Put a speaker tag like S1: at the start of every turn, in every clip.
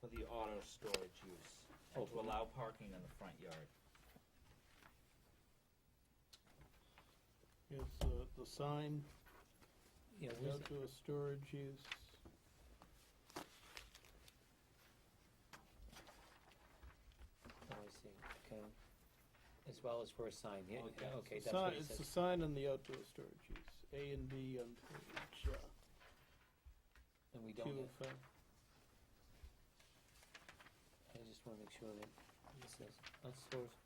S1: for the auto storage use, and to allow parking in the front yard.
S2: Is the, the sign
S3: Yeah, where's that?
S2: outdoor storage use?
S3: Oh, I see, okay. As well as for a sign, yeah,
S1: Okay.
S3: yeah, okay, that's
S2: Sign,
S3: what it
S2: it's the
S3: says.
S2: sign on the outdoor storage use, A and B on page, uh,
S3: And we don't
S2: two
S3: have,
S2: of uh, five.
S3: I just wanna make sure that this is, that's source.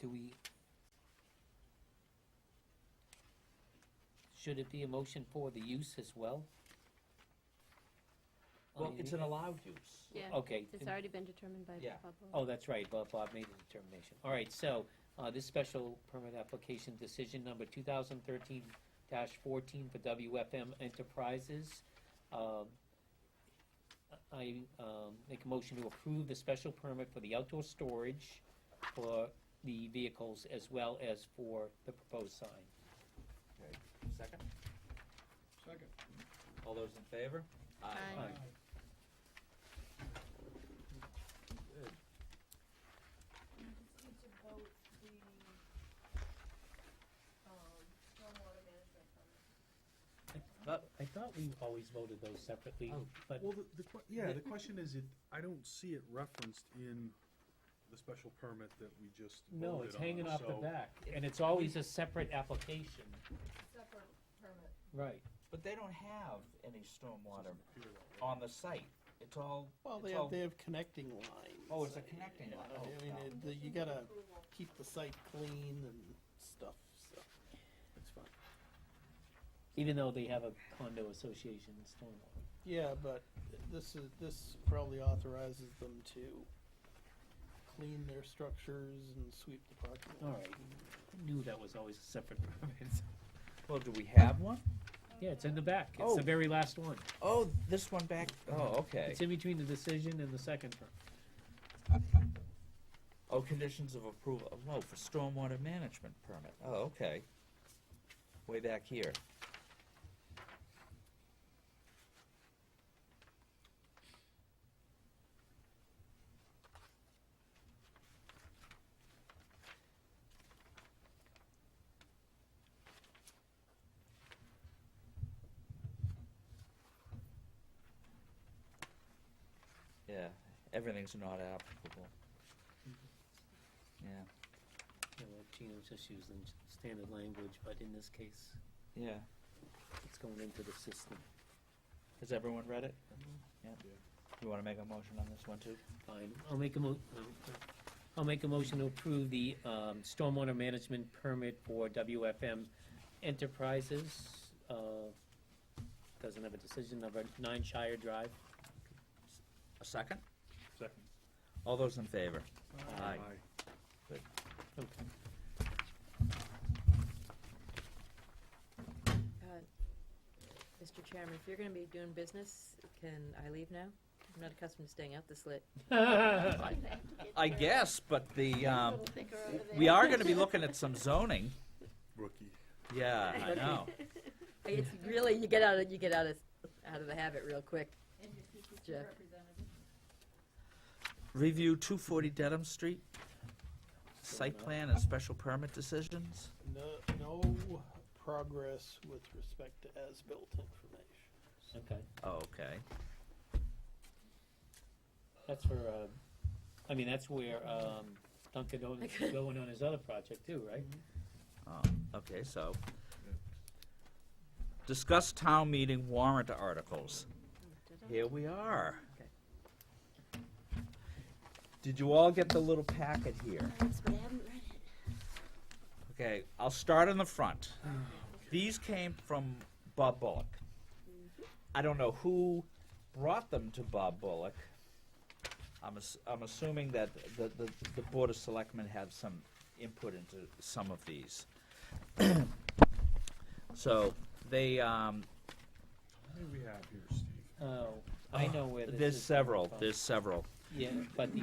S3: Do we? Should it be a motion for the use as well? Oh,
S1: Well,
S3: you
S1: it's
S3: need-
S1: an allowed use.
S4: Yeah.
S3: Okay.
S4: It's already been determined by
S1: Oh, Yeah.
S4: Bob. Lowe.
S3: Oh, that's right, Bob, Bob made the determination. All right, so, uh, this special permit application decision number two thousand thirteen fourteen for WFM Enterprises. Um, I, um, make a motion to approve the special permit for the outdoor storage for the vehicles as well as for the proposed sign.
S1: Second,
S5: Second.
S1: all those in favor?
S4: Aye.
S3: Aye.
S1: Good.
S6: just need to vote the, um, stormwater management permit.
S3: I thought we always voted those separately,
S1: Oh.
S3: but,
S5: Well, the, the, que- yeah, the question is, it, I don't see it referenced in the special permit that we just voted on.
S3: no, it's hanging off the
S5: so-
S3: back, and it's always a separate application.
S6: Separate permit.
S3: Right.
S1: But they don't have any stormwater
S5: Here that way.
S1: on the site. It's all,
S2: Well, they
S1: it's
S2: have,
S1: all,
S2: they have connecting lines.
S1: Oh, it's a connecting
S2: You know,
S1: line.
S2: I
S1: Oh,
S2: mean,
S1: no.
S2: it- the- you gotta keep the site clean and stuff, so, it's fine.
S3: Even though they have a condo association in Stonewall.
S2: Yeah, but this is, this probably authorizes them to clean their structures and sweep the parking lot.
S3: All right, knew that was always a separate permit.
S1: well, do we have one?
S3: Yeah, it's in the back, it's
S1: Oh.
S3: the very last one.
S1: Oh, this one back, oh, okay.
S3: It's in between the decision and the second permit.
S1: Oh, conditions of approval, oh, for stormwater management permit, oh, okay. Way back here. Yeah, everything's not applicable. Yeah,
S3: You know, Gino's just using standard language, but in this case,
S1: yeah.
S3: it's going into the system.
S1: Has everyone read it? Yeah.
S5: Yeah.
S1: You wanna make a motion on this one too?
S3: Fine, I'll make a mo, um, I'll make a motion to approve the, um, stormwater management permit for WFM Enterprises, uh, doesn't have a decision, number nine Shire Drive.
S1: A second?
S5: Second.
S1: All those in favor?
S5: Aye.
S3: Okay.
S7: Uh, Mr. Chairman, if you're gonna be doing business, can I leave now? I'm not accustomed to staying out this late.
S1: I guess, but the, um,
S4: Little thicker over there.
S1: we are gonna be looking at some zoning.
S5: Rookie.
S1: Yeah, I know.
S7: It's really, you get out of, you get out of, out of the habit real quick.
S6: And your PPP
S7: Jeff.
S6: representative.
S1: Review two forty Dedham Street, site plan and special permit decisions.
S2: No, no progress with respect to as-built information.
S3: Okay.
S1: Oh, okay.
S3: That's where, uh, I mean, that's where, um, Dunkin' Donuts is going on his other project too, right?
S1: Oh, okay, so. Discuss town meeting warrant articles. Here we are.
S7: Okay.
S1: Did you all get the little packet here?
S4: Yes, but I haven't read it.
S1: Okay, I'll start on the front. These came from Bob Bullock.
S4: Mm-hmm.
S1: I don't know who brought them to Bob Bullock. I'm, ass- I'm assuming that the, the, the Board of Selectmen had some input into some of these. so they, um,
S5: What do we have here, Steve?
S3: Oh, I know where this is.
S1: Uh, there's several,
S3: coming from.
S1: there's several.
S3: Yeah, but the